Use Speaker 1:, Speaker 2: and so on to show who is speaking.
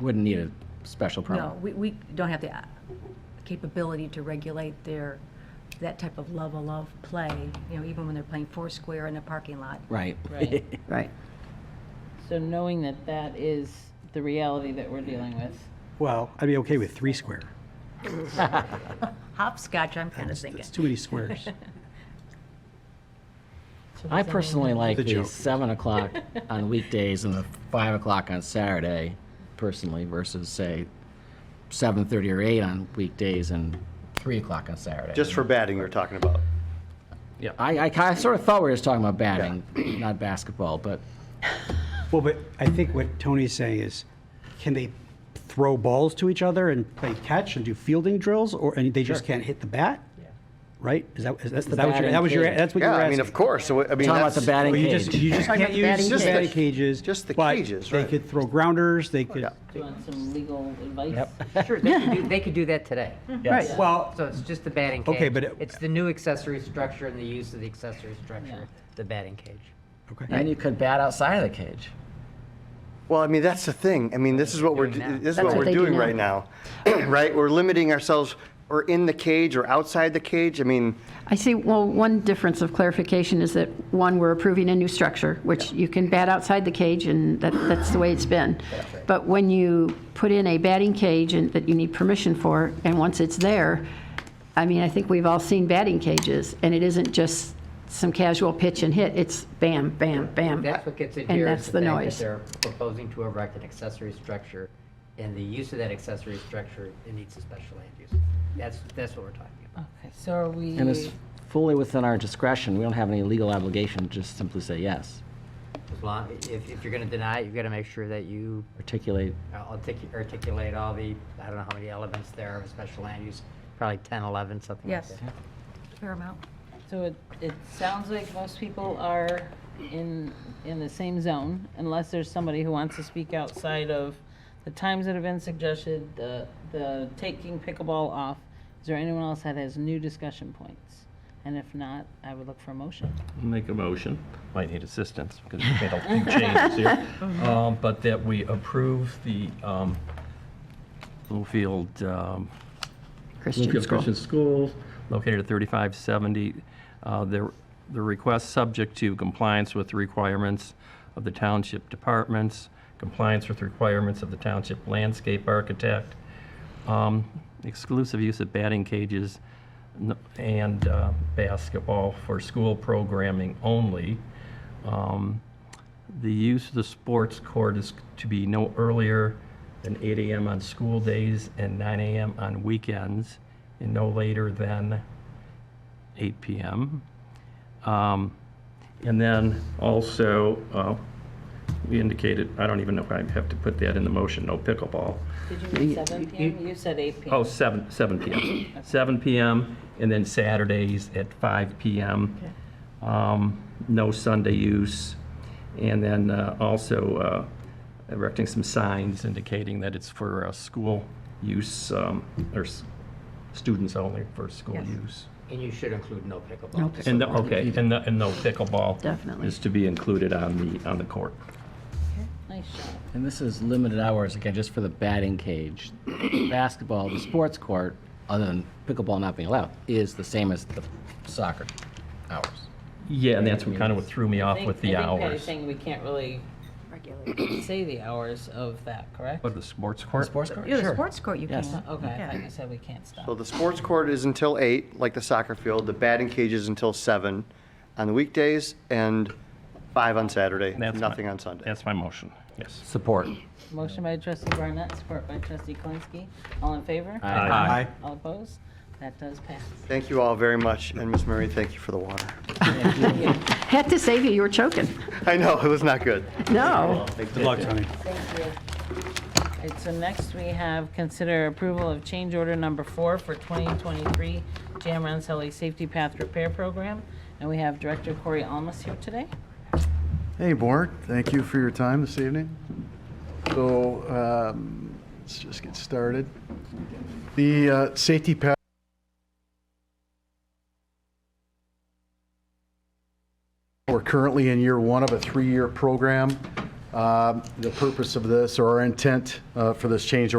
Speaker 1: Wouldn't need a special
Speaker 2: No,
Speaker 1: permit.
Speaker 2: we, we don't have the uh, capability to regulate their, that type of level of play, you know, even when they're playing foursquare in a parking lot.
Speaker 1: Right.
Speaker 3: Right.
Speaker 4: Right.
Speaker 3: So knowing that that is the reality that we're dealing with.
Speaker 5: Well, I'd be okay with three square.
Speaker 2: Hopscotch, I'm kind of
Speaker 5: It's
Speaker 2: thinking.
Speaker 5: it's too many squares.
Speaker 3: So
Speaker 1: I
Speaker 3: does that mean-
Speaker 1: personally like
Speaker 5: The
Speaker 1: the
Speaker 5: joke.
Speaker 1: seven o'clock on weekdays and the five o'clock on Saturday personally versus say seven thirty or eight on weekdays and three o'clock on Saturday.
Speaker 6: Just for batting, we were talking about.
Speaker 1: I, I kind of sort of thought we were just talking about batting, not basketball, but
Speaker 5: Well, but I think what Tony's saying is, can they throw balls to each other and play catch and do fielding drills, or, and they just can't hit the bat? Right? Is that, is that is that what
Speaker 1: batting
Speaker 5: you're, that was your,
Speaker 1: cage.
Speaker 5: that's what you
Speaker 6: Yeah,
Speaker 5: were
Speaker 6: I
Speaker 5: asking?
Speaker 6: mean, of course, so, I mean,
Speaker 1: talking about
Speaker 6: that's.
Speaker 1: the batting
Speaker 5: Well, you just,
Speaker 1: cage.
Speaker 5: you just
Speaker 6: Talking
Speaker 5: can't
Speaker 6: about the
Speaker 5: use
Speaker 6: batting
Speaker 5: batting
Speaker 6: cage.
Speaker 5: cages.
Speaker 6: Just the
Speaker 5: but
Speaker 6: cages,
Speaker 5: They
Speaker 6: right.
Speaker 5: could throw grounders, they could,
Speaker 3: Do you want some legal advice?
Speaker 7: Sure, they could do, they could do that today.
Speaker 1: Hmm.
Speaker 5: right, well,
Speaker 7: So it's just the batting cage.
Speaker 5: Okay, but it-
Speaker 7: It's the new accessory structure and the use of the accessory structure, the batting cage.
Speaker 5: okay.
Speaker 1: and you could bat outside of the cage.
Speaker 6: Well, I mean, that's the thing. I mean, this is what we're,
Speaker 7: Doing now.
Speaker 6: this is
Speaker 2: That's
Speaker 6: what
Speaker 2: what
Speaker 6: we're
Speaker 2: they do
Speaker 6: doing
Speaker 2: now.
Speaker 6: right now, right? We're limiting ourselves, or in the cage or outside the cage. I mean,
Speaker 4: I see, well, one difference of clarification is that, one, we're approving a new structure, which you can bat outside the cage, and that, that's the way it's been. But when you put in a batting cage and that you need permission for, and once it's there, I mean, I think we've all seen batting cages, and it isn't just some casual pitch and hit, it's bam, bam, bam.
Speaker 7: That's what gets in
Speaker 4: And
Speaker 7: here,
Speaker 4: that's
Speaker 7: is
Speaker 4: the
Speaker 7: the fact that
Speaker 4: noise.
Speaker 7: they're proposing to erect an accessory structure, and the use of that accessory structure, it needs a special land use. That's, that's what we're talking about.
Speaker 3: Okay, So are we,
Speaker 1: And it's fully within our discretion. We don't have any legal obligation to just simply say yes.
Speaker 7: As long, if, if you're gonna deny it, you've gotta make sure that you
Speaker 1: Articulate
Speaker 7: articu- articulate all the, I don't know how many elements there are of a special land use, probably 10, 11, something like
Speaker 2: Yes.
Speaker 7: that.
Speaker 2: Paramount.
Speaker 3: so it, it sounds like most people are in, in the same zone unless there's somebody who wants to speak outside of the times that have been suggested, the, the taking pickleball off. Is there anyone else that has new discussion points? And if not, I would look for a motion.
Speaker 8: make a motion, might need assistance because we've made a few changes here, Um, but that we approve the um, Bluefield, um,
Speaker 4: Christian
Speaker 8: Bluefield
Speaker 4: school.
Speaker 8: Christian School, located at 3570, uh, the the request subject to compliance with the requirements of the township departments, compliance with requirements of the township landscape architect, um, exclusive use of batting cages n- and uh, basketball for school programming only. Um, The use of the sports court is to be no earlier than 8 AM on school days and 9 AM on weekends, and no later than 8 PM. Um, And then also, uh, we indicated, I don't even know if I have to put that in the motion, no pickleball.
Speaker 3: Did you mean 7 PM? You said 8 PM.
Speaker 8: Oh, seven, seven PM. Seven PM, and then Saturdays at five PM. Um, No Sunday use. And then uh, also uh, erecting some signs indicating that it's for uh, school use, um, or s- students only for school use.
Speaker 7: And you should include no pickleball.
Speaker 8: And, the- okay, and the, and no pickleball.
Speaker 4: Definitely.
Speaker 8: Is to be included on the, on the court.
Speaker 1: Oh.
Speaker 3: Nice shot.
Speaker 1: And this is limited hours, again, just for the batting cage. Basketball, the sports court, other than pickleball not being allowed, is the same as the soccer hours.
Speaker 8: Yeah, and that's what kind of what threw me off
Speaker 3: think-
Speaker 8: with the
Speaker 3: I think Patty's
Speaker 8: hours.
Speaker 3: saying we can't really say the hours of that, correct?
Speaker 8: What, the sports court?
Speaker 1: Sports court,
Speaker 2: Yeah, the
Speaker 1: sure.
Speaker 2: sports court you
Speaker 1: Yes.
Speaker 2: can.
Speaker 3: Okay, I
Speaker 2: Yeah.
Speaker 3: thought you said we can't
Speaker 6: so
Speaker 3: stop.
Speaker 6: the sports court is until eight, like the soccer field. The batting cage is until seven on the weekdays and five on Saturday,
Speaker 8: That's my-
Speaker 6: nothing on Sunday.
Speaker 8: That's my motion, yes.
Speaker 1: Support.
Speaker 3: Motion by trustee Barnett, support by trustee Kalinsky. All in favor?
Speaker 5: Aye.
Speaker 3: All opposed? That does pass.
Speaker 6: Thank you all very much, and Miss Murray, thank you for the water.
Speaker 4: Had to save you, you were choking.
Speaker 6: I know, it was not good.
Speaker 4: No.
Speaker 5: Good luck, Tony.
Speaker 3: All right, so next we have consider approval of change order number four for 2023 Jam Rensselaer Safety Path Repair Program. And we have Director Corey Almus here today.
Speaker 9: Hey, Board, thank you for your time this evening. So um, let's just get started. The uh, safety path We're currently in year one of a three-year program. Uh,
Speaker 5: Um, The purpose of this, or our intent uh, for this change